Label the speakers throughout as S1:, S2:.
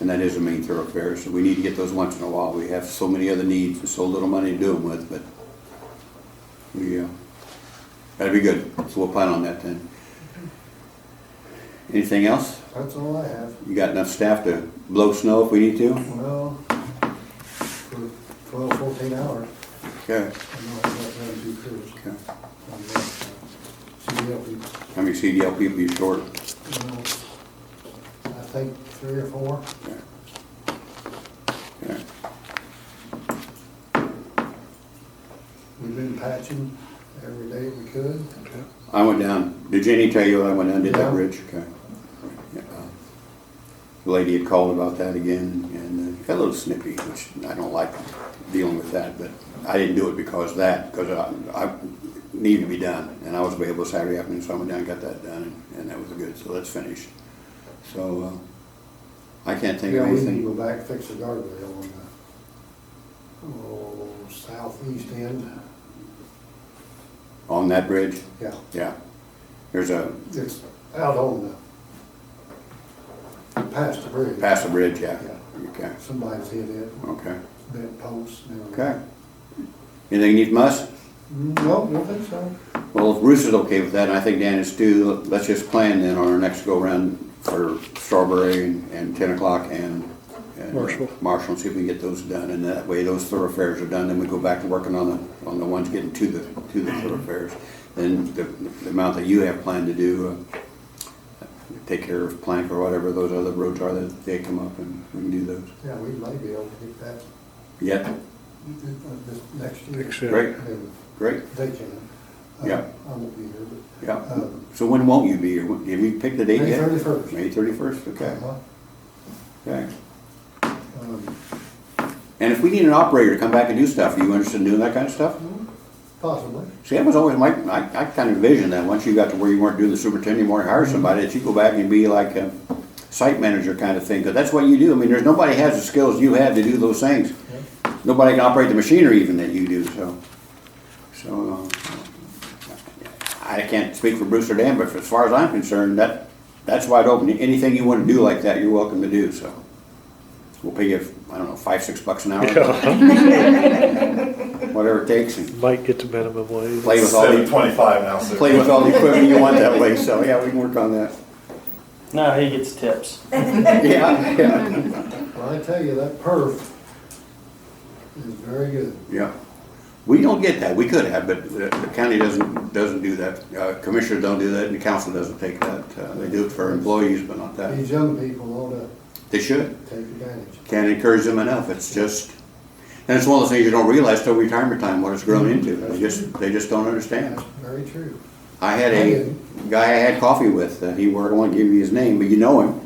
S1: and that is a main thoroughfare, so we need to get those once in a while. We have so many other needs and so little money to do them with, but we, uh, that'd be good, so we'll plan on that then. Anything else?
S2: That's all I have.
S1: You got enough staff to blow snow if we need to?
S2: Well, for twelve, fourteen hours,
S1: Okay.
S2: I know I've got them two crews.
S1: okay.
S2: on the outside. See, help you,
S1: How many CDL people you short?
S2: you know, I think three or four.
S1: Okay. Okay.
S2: We've been patching every day we could.
S1: I went down, did Jenny tell you I went down and did that
S2: Yeah.
S1: bridge? Okay. Yeah, uh, The lady had called about that again and uh, got a little snippy, which I don't like dealing with that, but I didn't do it because of that, because I, I needed to be done. And I was available Saturday afternoon, so I went down and got that done and- and that was good, so that's finished. So, uh, I can't think
S2: Yeah,
S1: of
S2: we need to
S1: anything.
S2: go back, fix the guardrail on the, oh, southeast end.
S1: On that bridge,
S2: Yeah,
S1: yeah. There's a,
S2: it's out on the, past the bridge.
S1: past the bridge, yeah.
S2: Yeah.
S1: Okay,
S2: Somebody's hit it,
S1: okay,
S2: bent posts and everything.
S1: okay. Anything you need from us?
S2: No, don't think so.
S1: Well, if Bruce is okay with that, and I think Dan is too, let's just plan then on our next go-around for Strawberry and and ten o'clock and. and
S3: Marshall.
S1: Marshall, and see if we can get those done, and that way those thoroughfares are done, then we go back to working on the, on the ones getting to the, to the thoroughfares. Then the, the amount that you have planned to do, uh, take care of Plank or whatever those other roads are that they come up and we can do those.
S2: Yeah, we may be able to get that
S1: Yeah,
S2: uh, this next year.
S3: Next year.
S1: Great.
S2: Maybe
S1: great,
S2: They can. Uh,
S1: Yeah.
S2: I won't be here, but. um,
S1: yeah. So when won't you be here? Have you picked the date
S2: Uh, May
S1: yet?
S2: thirty-first.
S1: May thirty-first, okay, okay. And if we need an operator to come back and do stuff, are you interested in doing that kind of stuff?
S2: um, Possibly.
S1: See, that was always my, I, I kind of envisioned that, once you got to where you weren't doing the superintendent anymore, hire somebody, that you go back and be like a site manager kind of thing, because that's what you do. I mean, there's, nobody has the skills you have to do those things.
S2: Yeah.
S1: Nobody can operate the machinery even that you do, so. So, uh, I can't speak for Bruce or Dan, but as far as I'm concerned, that, that's wide open. Anything you want to do like that, you're welcome to do, so. We'll pay you, I don't know, five, six bucks an hour,
S3: Yeah.
S1: whatever it takes, and
S3: Might get to minimum wage.
S1: play with all the
S4: Seven twenty-five now, so.
S1: play with all the equipment you want that way, so yeah, we can work on that.
S5: No, he gets tips.
S1: Yeah, yeah.
S2: Well, I tell you, that perf is very good.
S1: Yeah. We don't get that, we could have, but the the county doesn't, doesn't do that, uh, commissioners don't do that, and the council doesn't take that, uh, they do it for employees, but not that.
S2: These young people ought to
S1: They should,
S2: take advantage.
S1: can't encourage them enough, it's just, and it's one of those things you don't realize till retirement time what it's grown into, they just, they just don't understand.
S2: That's very true.
S1: I had a guy I had coffee with, uh, he worked, I won't give you his name, but you know him.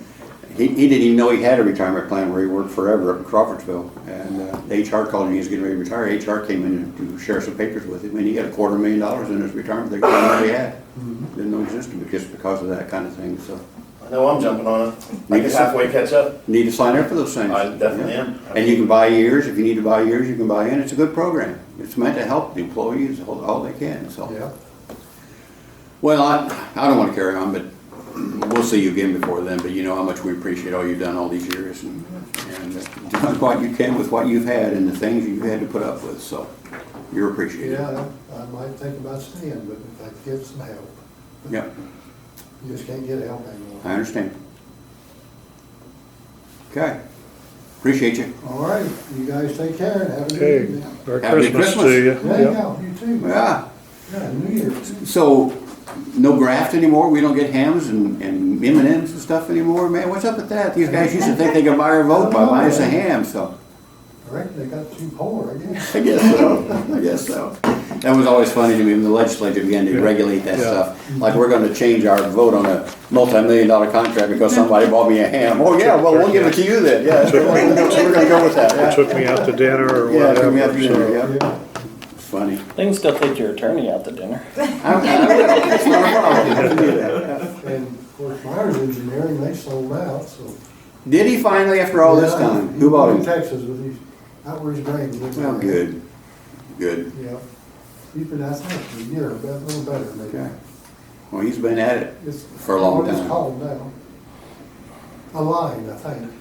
S1: He, he didn't even know he had a retirement plan where he worked forever up in Crawfordsville. And uh, the HR called him, he was getting ready to retire. HR came in to share some papers with him and he got a quarter million dollars in his retirement that he didn't know he had. Didn't know existed, but just because of that kind of thing, so.
S4: I know I'm jumping on it. I
S1: Need to
S4: can
S1: sign-
S4: halfway catch up.
S1: Need to sign up for those things.
S4: I definitely am.
S1: Yeah. And you can buy years, if you need to buy years, you can buy in. It's a good program. It's meant to help the employees all, all they can, so.
S2: Yeah.
S1: Well, I, I don't want to carry on, but we'll see you again before then, but you know how much we appreciate all you've done all these years and, and uh, done what you can with what you've had and the things you've had to put up with, so you're appreciated.
S2: Yeah, I I might think about staying, but if I could get some help.
S1: Yeah,
S2: You just can't get help anymore.
S1: I understand. Okay, appreciate you.
S2: All right, you guys take care and have a
S3: Okay,
S2: good evening.
S3: Merry
S1: Happy
S3: Christmas
S1: Christmas.
S3: to you.
S2: Yeah,
S3: Yep.
S2: yeah, you too.
S1: Yeah,
S2: Yeah, New Year's.
S1: Ah, so no graft anymore? We don't get hams and, and M and M's and stuff anymore? Man, what's up with that? These guys used to think they could buy our vote by buying us a ham, so.
S2: I reckon they got too poor, I guess.
S1: I guess so. I guess so. That was always funny to me when the legislature began to regulate that
S3: Yeah.
S1: stuff. Like, we're gonna change our vote on a multi-million dollar contract because somebody bought me a ham. Oh, yeah, well, we'll give it to you then, yeah. so We're gonna go- we're gonna go with that,
S3: They
S1: yeah.
S3: Took me out to dinner or
S1: Yeah, took me out
S3: whatever,
S1: to dinner,
S3: so.
S1: yeah.
S2: Yeah.
S1: It's funny.
S5: They can still take your attorney out to dinner.
S1: I- I- It's not a problem. You can do that.
S2: And of course, Myers Engineering, they sold out, so.
S1: Did he finally, after all this
S2: Yeah,
S1: time?
S2: he
S1: Who bought
S2: went to
S1: him?
S2: Texas with his, out where his brain was.
S1: Well, good, good.
S2: Yeah. He's been out there for a year, but a little better
S1: Okay.
S2: maybe.
S1: Well, he's been at it.
S2: It's-
S1: For a long
S2: It's
S1: time.
S2: calmed down. A line, I think.